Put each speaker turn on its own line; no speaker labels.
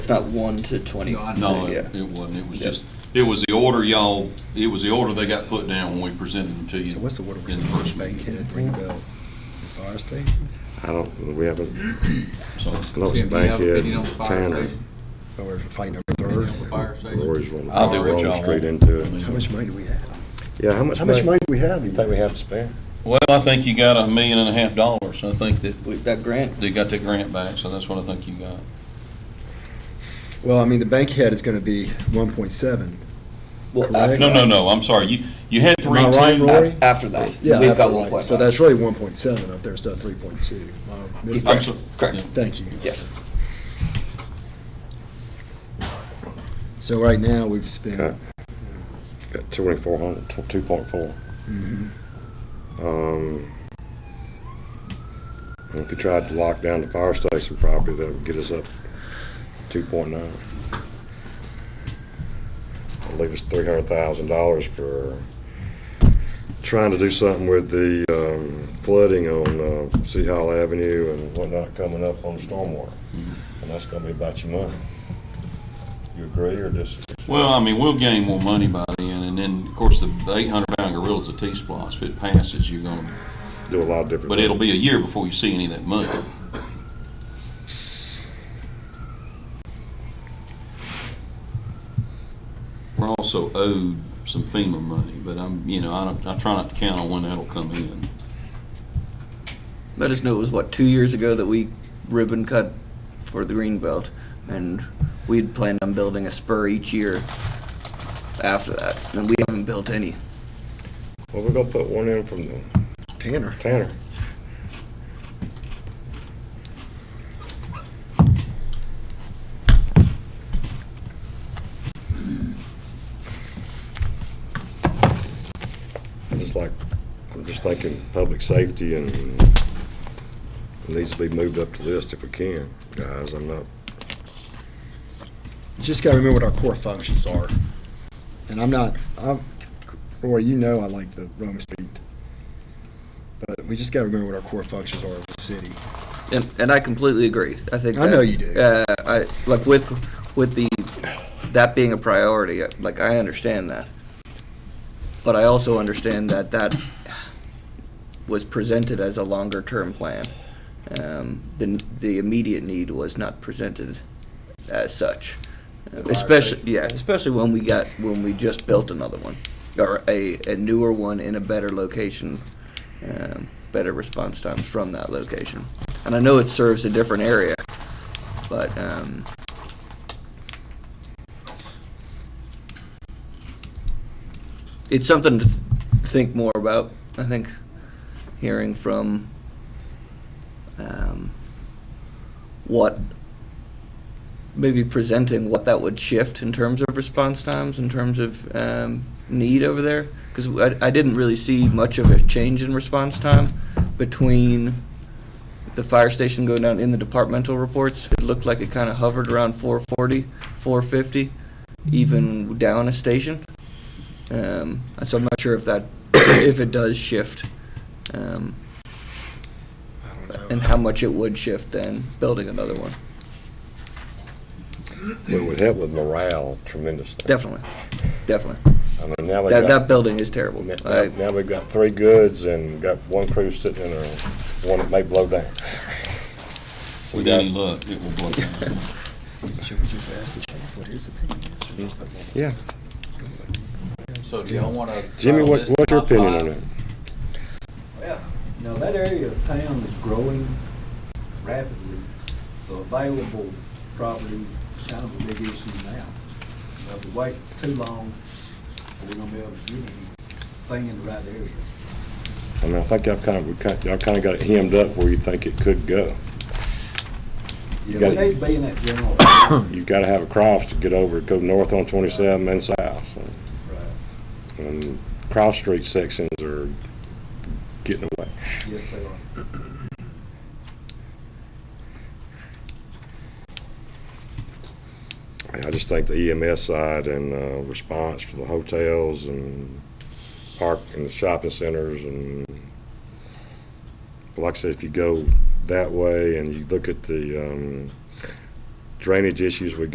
It's not one to twenty.
No, I
No,
Yeah.
it it wasn't. It was
Yeah.
just, it was the order y'all, it was the order they got put down when we presented them to you.
So what's the water
in the first
resource bank
meeting.
here at Greenbelt Fire Station?
I don't, we haven't,
So,
I know it's
Tim, do you
bank
have a
yet,
opinion on the fire
Tanner,
station?
Or we're fighting
Opinion
over
on the
third?
fire station?
Lori's one.
I'll do what y'all want.
Straight into it.
How much money do we have?
Yeah, how much?
How much money do we have? in
I think we
that?
have to spare.
well, I think you got a million and a half dollars. I think that
We, that grant,
they got that grant back, so that's what I think you got.
Well, I mean, the bank head is gonna be one point seven.
well,
Correct.
after,
No, no, no, I'm sorry. You, you had
Am
three,
I right,
two.
Rory?
after that,
Yeah,
we've
after
got
the
one
light.
point
So
five.
that's really one point seven up there, instead of three point two. This-
I'm so-
Correct.
Thank you.
Yes,
So right now, we've spent,
Okay. Got twenty-four hundred, two point four.
Mhm.
Um, if we tried to lock down the fire station property, that would get us up two point nine. I'll leave us three hundred thousand dollars for trying to do something with the, um, flooding on, uh, Sea Hall Avenue and whatnot coming up on stormwater. And that's gonna be about your money. You agree or dis?
Well, I mean, we'll gain more money by then, and then, of course, the eight hundred pound gorilla's a T-Splosh. If it passes, you're gonna,
do a lot of different.
but it'll be a year before you see any of that money. We're also owed some FEMA money, but I'm, you know, I don't, I try not to count on when that'll come in.
let us know, it was what, two years ago that we ribbon cut for the green belt, and we'd planned on building a spur each year after that, and we haven't built any.
Well, we're gonna put one in from the
Tanner,
Tanner. I just like, I'm just thinking public safety and it needs to be moved up the list if we can, guys, I'm not,
just gotta remember what our core functions are. And I'm not, I'm, Roy, you know I like the Rome Street. But we just gotta remember what our core functions are as a city.
And, and I completely agree. I think
I
that-
know you do.
Uh, I like with with the that being a priority. uh, Like I understand that, but I also understand that that was presented as a longer term plan. Um, the the immediate need was not presented as such, especially yeah, especially when we got when we just built another one or a, a newer one in a better location, um, better response times from that location. And I know it serves a different area, but um, it's something to th- think more about. I think hearing from um, what maybe presenting what that would shift in terms of response times, in terms of um, need over there, because I, I didn't really see much of a change in response time between the fire station going down in the departmental reports. It looked like it kind of hovered around 440, 450, even down a station. Um, so I'm not sure if that, if it does shift, um,
I don't know.
and how much it would shift then building another one.
it would help with morale tremendously.
Definitely, definitely.
I mean, now we
That,
got-
that building is terrible.
Now- Now
I-
now we've got three goods and got one crew sitting in there, one that may blow down. So we
With
got-
any luck, it will blow down.
Should we just ask the chief what his opinion is?
Yeah,
So do y'all wanna?
Jimmy, what, what's your opinion on it?
Now, that area of town is growing rapidly, so available properties is kind of a big issue now. Now, If we wait too long, we're gonna be able to get anything in the right area.
I mean, I think y'all kind of, we kind- y'all kind of got it hemmed up where you think it could go. You
Yeah, we
gotta-
need to be in that general. area.
You've got to have a cross to get over, go north on twenty-seven and south. And cross street sections are getting away.
Yes, they are.
I just think the EMS side and uh, response for the hotels and park and the shopping centers and, like I said, if you go that way and you look at the um, drainage issues we